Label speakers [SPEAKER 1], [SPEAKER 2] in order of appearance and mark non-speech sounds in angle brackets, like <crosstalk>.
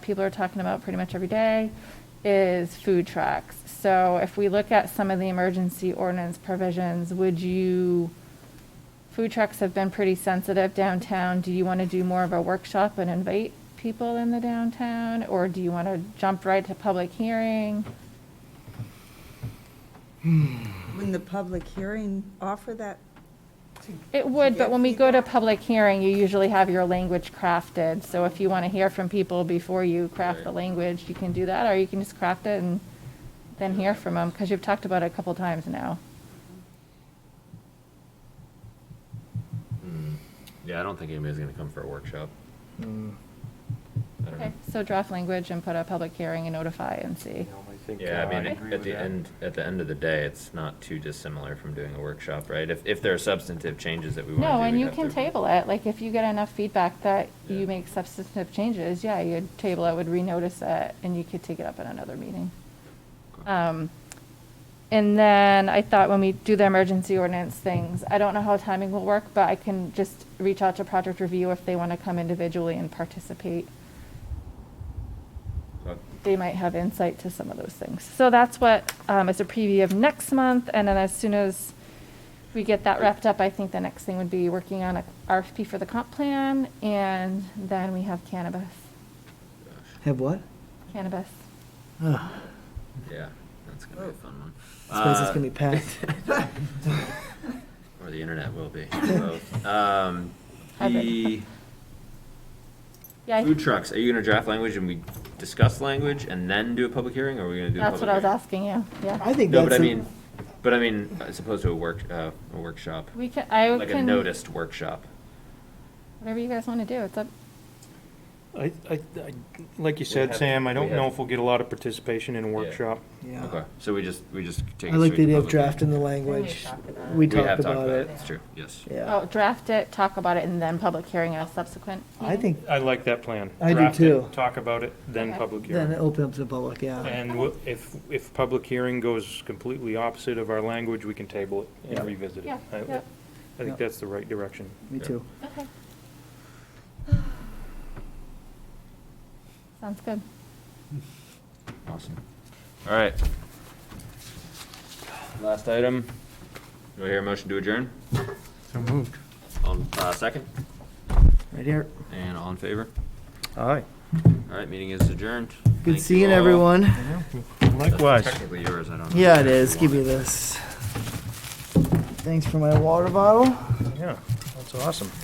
[SPEAKER 1] people are talking about pretty much every day is food trucks. So if we look at some of the emergency ordinance provisions, would you, food trucks have been pretty sensitive downtown. Do you want to do more of a workshop and invite people in the downtown? Or do you want to jump right to public hearing?
[SPEAKER 2] Wouldn't the public hearing offer that?
[SPEAKER 1] It would, but
[SPEAKER 2] get
[SPEAKER 1] when we go to public hearing, you usually have your language crafted. So if you want to hear from people before you craft the language, you can do that, or you can just craft it and then hear from them, because you've talked about it a couple times now.
[SPEAKER 3] Mm. Yeah, I don't think anybody's gonna come for a workshop.
[SPEAKER 1] Mm.
[SPEAKER 3] I don't
[SPEAKER 1] Okay,
[SPEAKER 3] know.
[SPEAKER 1] so draft language and put a public hearing and notify and see.
[SPEAKER 3] Yeah, uh, I mean,
[SPEAKER 1] agree
[SPEAKER 3] at the end, at the end of the day, it's not too dissimilar from doing a workshop, right? If, if there are substantive changes that we wanna do.
[SPEAKER 1] No, and
[SPEAKER 3] we'd
[SPEAKER 1] you
[SPEAKER 3] have
[SPEAKER 1] can
[SPEAKER 3] to-
[SPEAKER 1] table it, like, if you get enough feedback that
[SPEAKER 3] Yeah.
[SPEAKER 1] you make substantive changes, yeah, you'd table it, would renotice it, and you could take it up at another meeting. Um, And then I thought when we do the emergency ordinance things, I don't know how timing will work, but I can just reach out to project review if they want to come individually and participate.
[SPEAKER 3] Okay.
[SPEAKER 1] They might have insight to some of those things. So that's what, um, is a preview of next month, and then as soon as we get that wrapped up, I think the next thing would be working on a RFP for the comp plan, and then we have cannabis,
[SPEAKER 4] Have what?
[SPEAKER 1] cannabis.
[SPEAKER 4] Ugh.
[SPEAKER 3] Yeah, that's gonna be a
[SPEAKER 2] Oh.
[SPEAKER 3] fun one.
[SPEAKER 4] This place is
[SPEAKER 3] Uh,
[SPEAKER 4] gonna be packed.
[SPEAKER 3] <laughs> Or the internet will be, both. Um,
[SPEAKER 1] Hybrid.
[SPEAKER 3] the
[SPEAKER 1] Yeah, I-
[SPEAKER 3] food trucks, are you gonna draft language and we discuss language and then do a public hearing, or are we gonna do a
[SPEAKER 1] that's
[SPEAKER 3] public
[SPEAKER 1] what I was
[SPEAKER 3] hearing?
[SPEAKER 1] asking you, yeah.
[SPEAKER 4] I think
[SPEAKER 3] No, but I
[SPEAKER 4] that's a-
[SPEAKER 3] mean, but I mean, as opposed to a work, uh, a workshop,
[SPEAKER 1] We can, I can.
[SPEAKER 3] like a noticed workshop.
[SPEAKER 1] Whatever you guys want to do, it's up.
[SPEAKER 5] I, I, I- like you
[SPEAKER 3] have-
[SPEAKER 5] said, Sam, I
[SPEAKER 3] we
[SPEAKER 5] don't know
[SPEAKER 3] have-
[SPEAKER 5] if we'll get a lot of participation in a
[SPEAKER 3] Yeah.
[SPEAKER 5] workshop.
[SPEAKER 4] Yeah.
[SPEAKER 3] Okay, so we just, we just take.
[SPEAKER 4] I
[SPEAKER 3] it
[SPEAKER 4] like
[SPEAKER 3] straight
[SPEAKER 4] the
[SPEAKER 3] to
[SPEAKER 4] idea of
[SPEAKER 3] public.
[SPEAKER 4] drafting the language. We
[SPEAKER 3] We have
[SPEAKER 4] talked about it.
[SPEAKER 3] That's true, yes.
[SPEAKER 1] Oh,
[SPEAKER 4] Yeah.
[SPEAKER 1] draft it, talk about it, and then public hearing at a subsequent
[SPEAKER 4] I
[SPEAKER 1] meeting?
[SPEAKER 4] think
[SPEAKER 5] I like that plan.
[SPEAKER 4] I do
[SPEAKER 5] Draft it,
[SPEAKER 4] too.
[SPEAKER 5] Talk about it, then
[SPEAKER 1] Okay.
[SPEAKER 5] public
[SPEAKER 4] then it
[SPEAKER 5] hearing.
[SPEAKER 4] opens up to the public, yeah.
[SPEAKER 5] And we'll- if, if public hearing goes completely opposite of our language, we can table it
[SPEAKER 4] Yeah.
[SPEAKER 5] and revisit it.
[SPEAKER 1] Yeah,
[SPEAKER 5] I-
[SPEAKER 1] yeah.
[SPEAKER 5] I
[SPEAKER 4] Yeah.
[SPEAKER 5] think that's the right direction.
[SPEAKER 4] Me
[SPEAKER 3] Yeah.
[SPEAKER 4] too.
[SPEAKER 1] Okay. <sighs> Sounds good.
[SPEAKER 3] Awesome. All right. Last item. Do I hear a motion to adjourn?
[SPEAKER 4] So moved.
[SPEAKER 3] On, uh, second?
[SPEAKER 4] Right here.
[SPEAKER 3] And all in favor?
[SPEAKER 5] Aye.
[SPEAKER 3] All right, meeting is adjourned. Thank
[SPEAKER 4] Good
[SPEAKER 3] you
[SPEAKER 4] seeing
[SPEAKER 3] all.
[SPEAKER 4] everyone.
[SPEAKER 3] That's
[SPEAKER 5] Likewise.
[SPEAKER 3] Technically yours, I don't know.
[SPEAKER 4] Yeah, it is. Give me this. Thanks for my water bottle.
[SPEAKER 5] Yeah, that's awesome.